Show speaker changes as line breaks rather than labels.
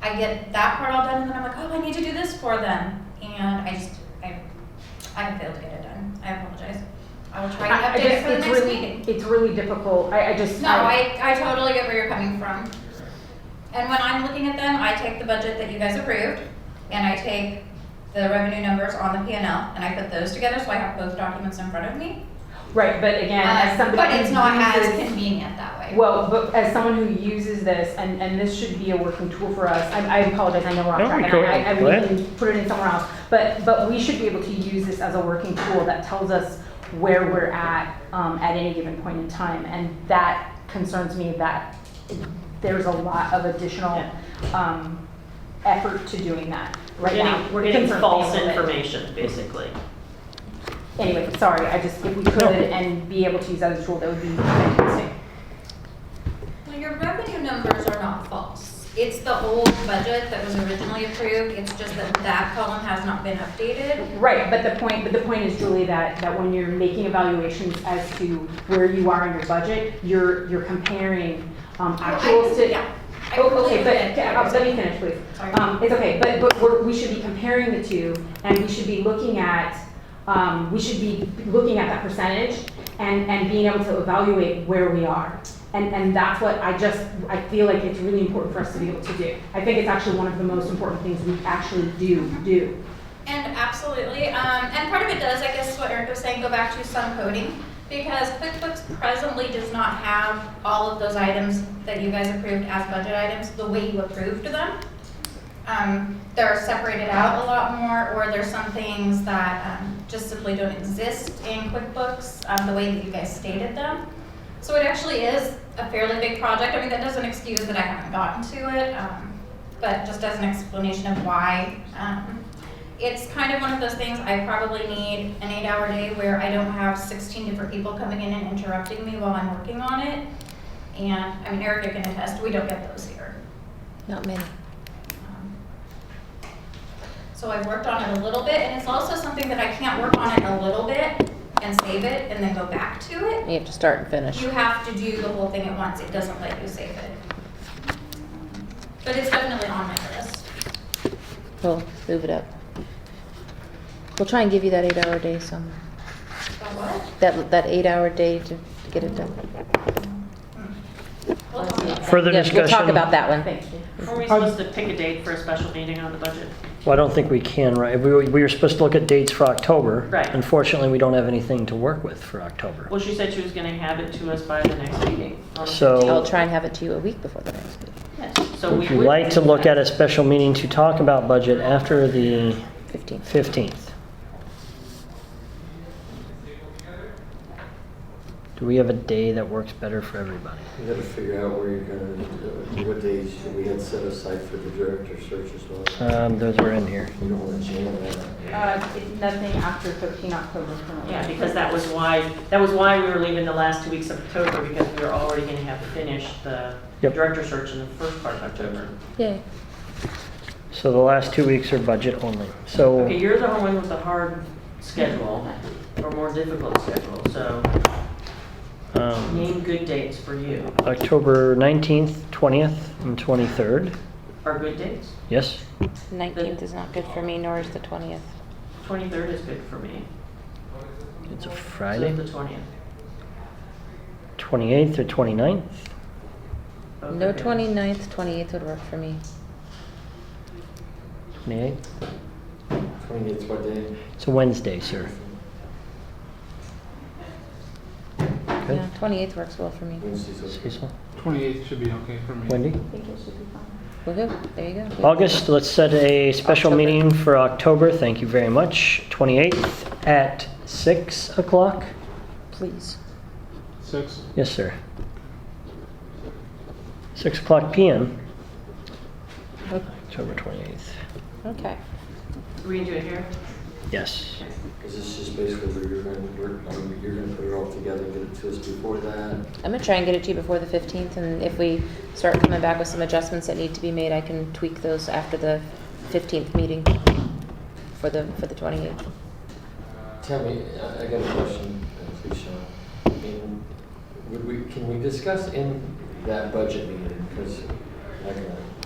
I get that part all done, and then I'm like, oh, I need to do this for them, and I just, I, I failed to get it done. I apologize. I will try to
I- I
update it
just-
for the
it's
next
really-
meeting.
It's really difficult, I, I just.
No, I, I totally get where you're coming from. And when I'm looking at them, I take the budget that you guys approved, and I take the revenue numbers on the P and L, and I put those together, so I have both documents in front of me.
Right, but again, as
Um,
somebody.
But it's
who
not as
uses-
convenient that way.
Well, but as someone who uses this, and, and this should be a working tool for us, I, I apologize, I know we're off
No,
track, and
go-
I, I,
go
we
ahead.
can put it in somewhere else. But, but we should be able to use this as a working tool that tells us where we're at, um, at any given point in time, and that concerns me that there's a lot of additional, um, effort to doing that
We're
right now.
getting, we're getting
Concerns me a
false
little bit.
information, basically.
Anyway, sorry, I just, if we could and be able to use that as a tool, that would be fantastic.
Well, your revenue numbers are not false. It's the old budget that was originally approved, it's just that that column has not been updated.
Right, but the point, but the point is, Julie, that, that when you're making evaluations as to where you are in your budget, you're, you're comparing um, actuals to.
Yeah. I
Oh,
completely
Okay,
get
but, yeah, uh, let me finish, please.
Sorry.
Um, it's okay, but, but we're, we should be comparing the two, and we should be looking at, um, we should be looking at that percentage and, and being able to evaluate where we are. And, and that's what I just, I feel like it's really important for us to be able to do. I think it's actually one of the most important things we actually do, do.
And absolutely, um, and part of it does, I guess what Eric was saying, go back to some coding, because QuickBooks presently does not have all of those items that you guys approved as budget items, the way you approved them. Um, they're separated out a lot more, or there's some things that, um, just simply don't exist in QuickBooks, um, the way that you guys stated them. So it actually is a fairly big project, I mean, that doesn't excuse that I haven't gotten to it, um, but just as an explanation of why, um, it's kind of one of those things, I probably need an eight-hour day where I don't have sixteen different people coming in and interrupting me while I'm working on it. And, I mean, Erica can attest, we don't get those here.
Not many.
Um, So I've worked on it a little bit, and it's also something that I can't work on it a little bit and save it and then go back to it.
You have to start and finish.
You have to do the whole thing at once, it doesn't let you save it. But it's definitely on my list.
We'll move it up. We'll try and give you that eight-hour day some,
So what?
that, that eight-hour day to get it done.
We'll talk about that.
Further
Yeah, We'll talk
discussion?
about that one.
Thank you.
Are we supposed to pick a date for a special meeting on the budget?
Well, I don't think we can, right? We were, we were supposed to look at dates for October.
Right.
Unfortunately, we don't have anything to work with for October.
Well, she said she was gonna have it to us by the next meeting. on the
So
I'll try and have it to you a week before the next meeting,
15th. So we
would you
would
like to
do
look at
that.
a special meeting to talk about budget after the
15th.
15th? Do we have a day that works better for everybody?
You gotta figure out where you're gonna, uh, what days we had set aside for the director search as well.
Um, Those are in here.
You don't wanna jam that.
Uh, it's nothing after thirteen October for me.
Yeah, because that was why, that was why we were leaving the last two weeks of October, because we were already gonna have finished the
Yep.
director search in the first part of October.
Yay.
So the last two weeks are budget only. So.
Okay, you're the one with the hard schedule, or more difficult schedule, so
um,
name good dates for you.
October 19th, 20th, and 23rd.
Are good dates?
Yes?
19th is
not good for me, nor is the 20th.
23rd is good for me.
It's a
So
Friday.
the 20th.
28th or 29th?
Both
No
are good.
29th, 28th would work for me.
28th?
Twenty-eighth, what day?
It's a Wednesday, sir. Good.
Yeah, 28th works well for me.
Wednesday's okay.
Cecil?
28th should be okay for me.
Wendy?
Woohoo, there you go.
August, let's set a special
October.
meeting for October. Thank you very much. 28th at 6 o'clock?
Please.
Six.
Yes, sir. 6 o'clock PM, October 28th.
Okay.
We can do it here?
Yes.
Cause this is basically where you're gonna work, on- you're gonna put it all together, get it to us before that.
I'm gonna try and get it to you before the 15th, and if we start coming back with some adjustments that need to be made, I can tweak those after the 15th meeting for the, for the 28th.
Tell me, I, I got a question, uh, please, Sean. I mean, would we, can we discuss in that budget meeting? Cause like, uh,